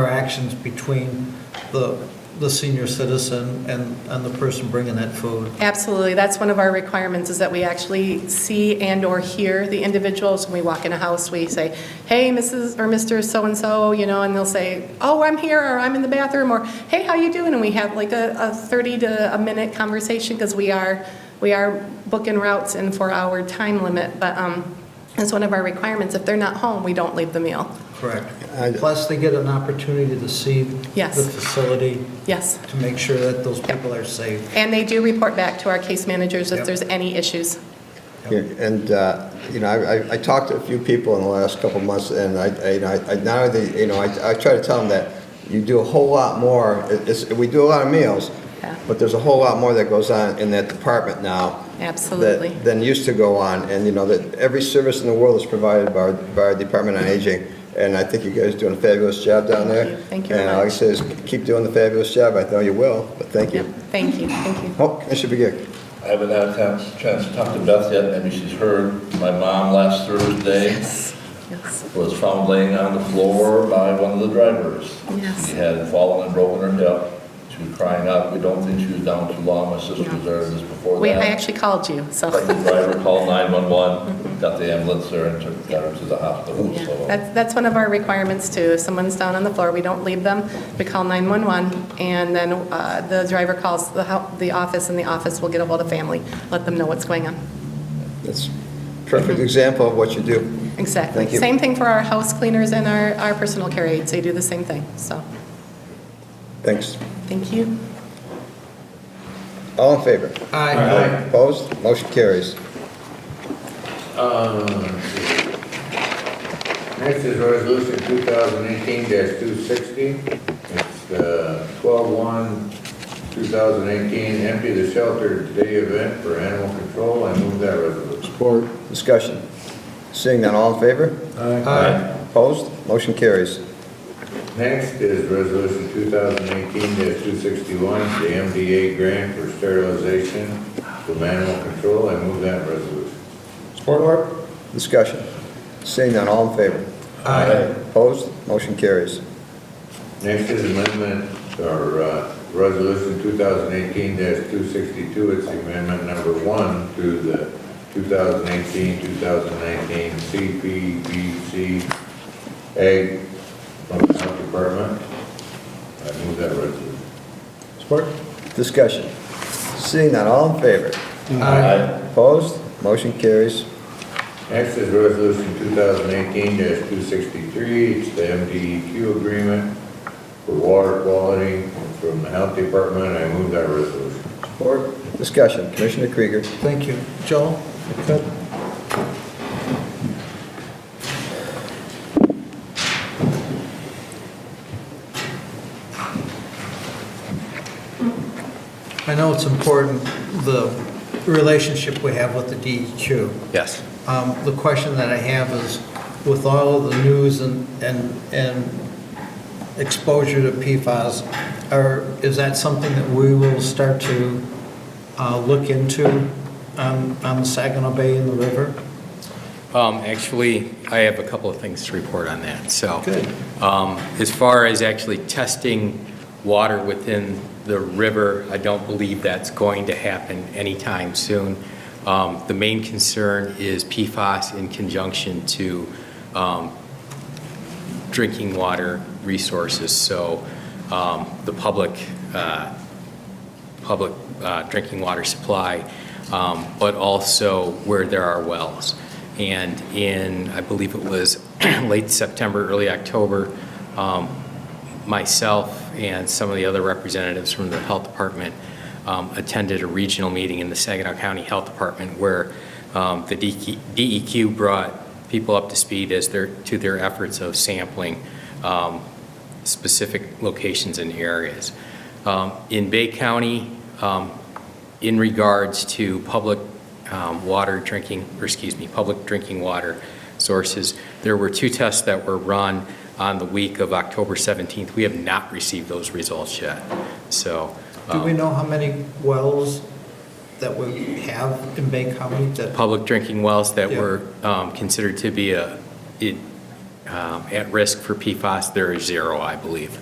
interactions between the, the senior citizen and, and the person bringing that food. Absolutely. That's one of our requirements, is that we actually see and/or hear the individuals. When we walk in a house, we say, "Hey, Mrs. or Mr. So-and-so," you know, and they'll say, "Oh, I'm here," or "I'm in the bathroom," or "Hey, how you doing?" And we have like a a 30 to a minute conversation, because we are, we are booking routes in four-hour time limit. But um, that's one of our requirements. If they're not home, we don't leave the meal. Correct. I- Plus, they get an opportunity to see Yes. the facility Yes. to make sure that those people are safe. And they do report back to our case managers if Yep. there's any issues. Yeah, And, uh, you know, I- I- I talked to a few people in the last couple of months, and I, I- you know, I- I- now, they- you know, I I try to tell them that you do a whole lot more, It- it's- we do a lot of meals, Yeah. but there's a whole lot more that goes on in that department now. that- Absolutely. Than used to go on, and, you know, that every service in the world is provided by our- by our Department on Aging, and I think you guys are doing a fabulous job down Thank there. you. Thank you very And like I much. said, keep doing the fabulous job, I know you will, but thank you. Yep. Thank you, thank you. Oh, I should begin. I haven't had a chance, chance to talk to Beth yet, maybe she's heard. My mom last Thursday Yes, yes. was found laying on the floor by one of the drivers. Yes. She had fallen and broken her hip. She was crying out. We don't think she was down too long. My sister was there just before Wait, I that. actually called you, But the so. driver called 911, got the ambulance there and took got her to the hospital, Yeah, so. That's, that's one of our requirements too. If someone's down on the floor, we don't leave them. We call 911 and then uh, the driver calls the, hel- the office and the office will get ahold of family, let them know what's going on. That's a perfect Mm-hmm. example of what you do. Exactly. Thank you. Same thing for our house cleaners and our, our personal care aides. They do the same thing, so. Thanks. Thank you. All in favor? Aye. Opposed? Motion carries. Uh, Next is resolution 2018-260. It's uh, 12/1/2018, empty the shelter day event for animal control. I move that resolution. Support. Discussion. Seeing none, all in favor? Aye. Opposed? Motion carries. Next is resolution 2018-261, the MDA grant for sterilization from animal control. I move that resolution. Support. Discussion. Seeing none, all in favor? Aye. Opposed? Motion carries. Next is amendment, or uh, resolution 2018-262, it's amendment number one to the 2018-2019 CPBC Ag from the Health Department. I move that resolution. Support. Discussion. Seeing none, all in favor? Aye. Opposed? Motion carries. Next is resolution 2018-263, it's the MDEQ agreement for water quality from the Health Department. I move that resolution. Support. Discussion. Commissioner Krieger. Thank you. Joel? Good. I know it's important, the relationship we have with the DEQ. Yes. Um, The question that I have is, with all of the news and, and and exposure to PFAS, are, is that something that we will start to uh, look into on, on the Saginaw Bay and the river? Um, Actually, I have a couple of things to report on that, so. Good. um, As far as actually testing water within the river, I don't believe that's going to happen anytime soon. Um, The main concern is PFAS in conjunction to um, drinking water resources, so um, the public, uh, public uh, drinking water supply, um, but also where there are wells. And in, I believe it was late September, early October, um, myself and some of the other representatives from the Health Department um, attended a regional meeting in the Saginaw County Health Department where um, the DQ DEQ brought people up to speed as their, to their efforts of sampling um, specific locations and areas. Um, In Bay County, um, in regards to public um, water drinking, or excuse me, public drinking water sources, there were two tests that were run on the week of October 17th. We have not received those results yet, so. Do we um, know how many wells that we have in Bay County that, Public drinking wells that Yeah. were um, considered to be a, it um, at risk for PFAS, there is zero, I believe.